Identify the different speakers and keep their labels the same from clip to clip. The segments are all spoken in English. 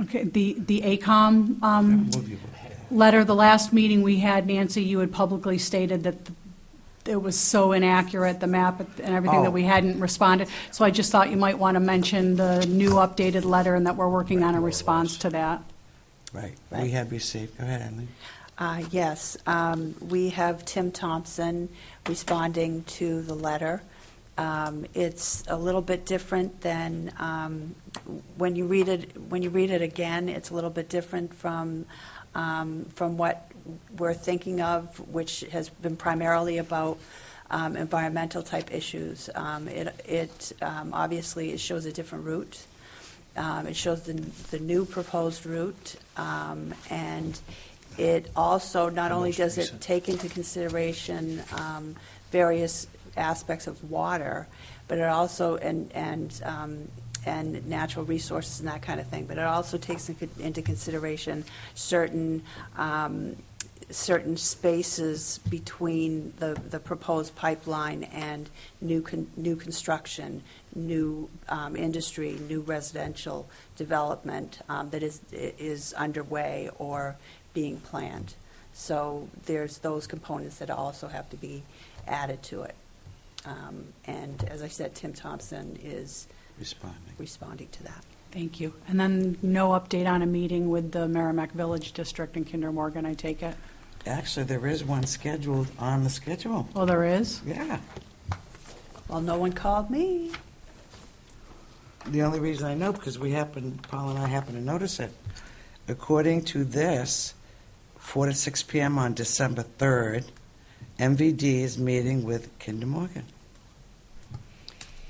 Speaker 1: Okay, the, the ACOM um,
Speaker 2: Mm-hmm.
Speaker 1: letter, the last meeting we had, Nancy, you had publicly stated that it was so inaccurate, the map and everything, that
Speaker 2: Oh.
Speaker 1: we hadn't responded. So I just thought you might want to mention the new updated letter and that we're working on a response to that.
Speaker 2: Right, we
Speaker 3: Right.
Speaker 2: had received, go ahead, Eileen.
Speaker 3: Uh, Yes, um, we have Tim Thompson responding to the letter. Um, It's a little bit different than, um, when you read it, when you read it again, it's a little bit different from, um, from what we're thinking of, which has been primarily about um, environmental-type issues. Um, It, it um, obviously, it shows a different route. Um, It shows the, the new proposed route, um, and it also, not only
Speaker 2: most
Speaker 3: does it
Speaker 2: recent.
Speaker 3: take into consideration um, various aspects of water, but it also, and, and, um, and natural resources and that kind of thing, but it also takes in- into consideration certain, um, certain spaces between the, the proposed pipeline and new, con- new construction, new um, industry, new residential development um, that is, is underway or being planned. So there's those components that also have to be added to it. Um, And as I said, Tim Thompson is
Speaker 2: Responding.
Speaker 3: responding to that.
Speaker 1: Thank you. And then no update on a meeting with the Merrimack Village District and Kinder Morgan, I take it?
Speaker 2: Actually, there is one scheduled on the schedule.
Speaker 1: Well, there is.
Speaker 2: Yeah.
Speaker 3: Well, no one called me.
Speaker 2: The only reason I know, because we happen, Paul and I happen to notice it. According to this, 4 to 6 PM on December 3rd, MVD is meeting with Kinder Morgan.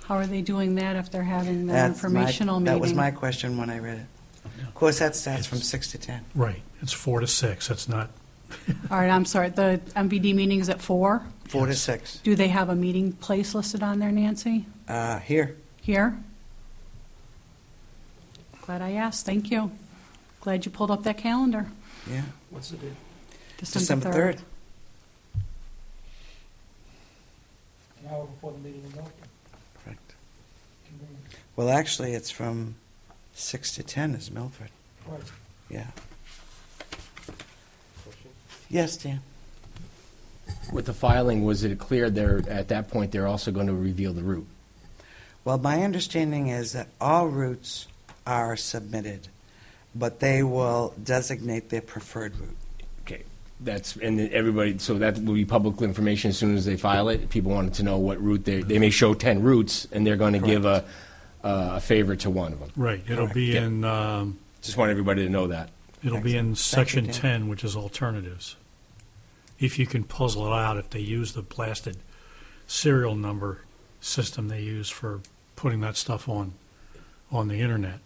Speaker 1: How are they doing that if they're having the
Speaker 2: That's my-
Speaker 1: informational meeting?
Speaker 2: That was my question when I read it. Of course, that starts from 6 to 10.
Speaker 4: Right, it's four to six, that's not,
Speaker 1: All right, I'm sorry, the MVD meeting is at four?
Speaker 2: 4 to 6.
Speaker 1: Do they have a meeting place listed on there, Nancy?
Speaker 2: Uh, Here.
Speaker 1: Here? Glad I asked, thank you. Glad you pulled up that calendar.
Speaker 2: Yeah.
Speaker 5: What's the date?
Speaker 2: December 3rd.
Speaker 5: An hour before the meeting is over.
Speaker 2: Correct.
Speaker 5: Convenient.
Speaker 2: Well, actually, it's from 6 to 10 is Milford.
Speaker 5: Right.
Speaker 2: Yeah. Yes, Dan?
Speaker 6: With the filing, was it clear there, at that point, they're also going to reveal the route?
Speaker 2: Well, my understanding is that all routes are submitted, but they will designate their preferred route.
Speaker 6: Okay, that's, and then everybody, so that will be public information as soon as they file it. People wanted to know what route they, they may show 10 routes, and they're going to give a, a favor to one of them.
Speaker 4: right, it'll be
Speaker 6: Correct.
Speaker 4: in, um,
Speaker 6: Just want everybody to know that.
Speaker 4: it'll be in
Speaker 2: Excellent. Thank you,
Speaker 4: section 10, which is alternatives. If you can puzzle it out, if they use the blasted serial number system they use for putting that stuff on, on the internet.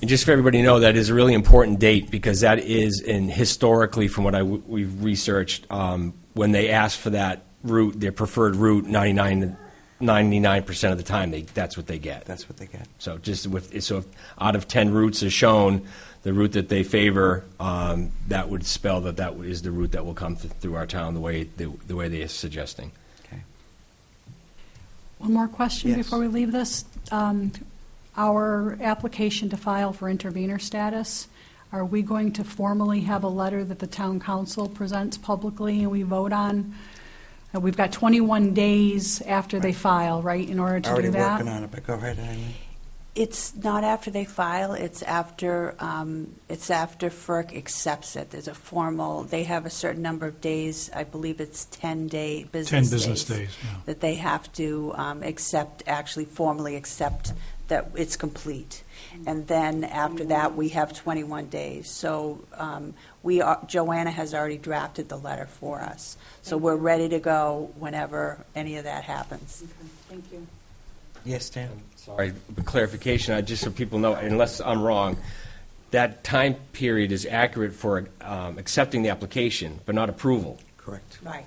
Speaker 6: And just for everybody to know, that is a really important date because that is, in historically, from what I, w- we've researched, um, when they asked for that route, their preferred route, 99, 99% of the time, they, that's what they get.
Speaker 2: That's what they get.
Speaker 6: So just with, so if out of 10 routes is shown, the route that they favor, um, that would spell that that is the route that will come th- through our town the way, the the way they are suggesting.
Speaker 2: Okay.
Speaker 1: One more question
Speaker 2: Yes.
Speaker 1: before we leave this. Um, Our application to file for intervenor status, are we going to formally have a letter that the town council presents publicly and we vote on? Uh, We've got 21 days after they file, right, in order to do
Speaker 2: Already
Speaker 1: that?
Speaker 2: working on it, but go ahead, Eileen.
Speaker 3: It's not after they file, it's after, um, it's after FERC accepts it. There's a formal, they have a certain number of days, I believe it's 10 day, business
Speaker 4: 10
Speaker 3: days.
Speaker 4: business days, yeah.
Speaker 3: That they have to um, accept, actually formally accept that it's complete. And then after that, we have 21 days. So um, we are, Joanna has already drafted the letter for us. So we're ready to go whenever any of that happens.
Speaker 1: Thank you.
Speaker 2: Yes, Dan?
Speaker 6: Um, Sorry, but clarification, I just so people know, unless I'm wrong, that time period is accurate for um, accepting the application, but not approval.
Speaker 2: Correct.
Speaker 3: Right.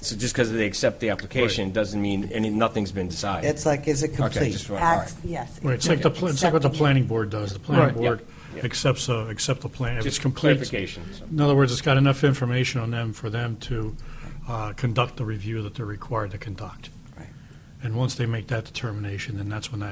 Speaker 6: So just because they accept the application doesn't mean any, nothing's been decided.
Speaker 2: It's like, is it
Speaker 6: Okay,
Speaker 2: complete?
Speaker 6: just want- all right.
Speaker 3: Yes.
Speaker 4: Right, it's like the, pla- it's like what the planning board does, the planning board accepts, a- accept the plan, if it's
Speaker 6: Just
Speaker 4: complete.
Speaker 6: clarification. so.
Speaker 4: In other words, it's got enough information on them for them to uh, conduct the review that they're required to conduct.
Speaker 2: Right.
Speaker 4: And once they make that determination, then that's when that